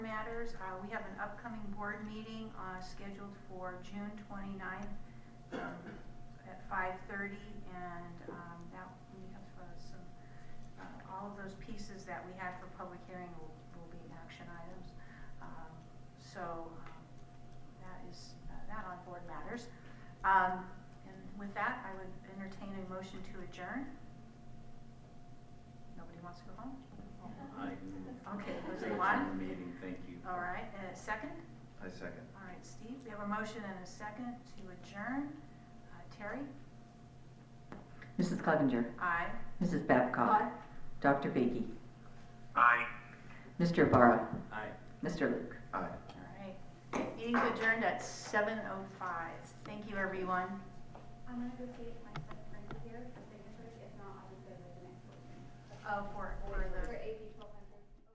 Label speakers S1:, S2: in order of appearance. S1: matters, uh, we have an upcoming board meeting, uh, scheduled for June twenty-ninth um, at five-thirty, and, um, that, we have uh, some, uh, all of those pieces that we had for public hearing will, will be action items. Um, So, um, that is, uh, that on board matters. Um, and with that, I would entertain a motion to adjourn. Nobody wants to go home?
S2: I move.
S1: Okay, was
S2: to
S1: it
S2: adjourn
S1: one?
S2: the Meeting, thank you.
S1: All right, and a second?
S3: I second.
S1: All right, Steve, we have a motion and a second to adjourn. Uh, Terry?
S4: Mrs. Clevenger.
S1: Aye.
S4: Mrs. Babcock.
S1: Aye.
S4: Dr. Biggie.
S5: Aye.
S4: Mr. Ibarra.
S2: Aye.
S4: Mr. Luke.
S3: Aye.
S1: All right. Meeting's adjourned at seven oh five. Thank you, everyone.
S6: I'm gonna go see if my stuff's printed here for signatures, if not, I'll just go to the next one.
S1: Oh, for, for the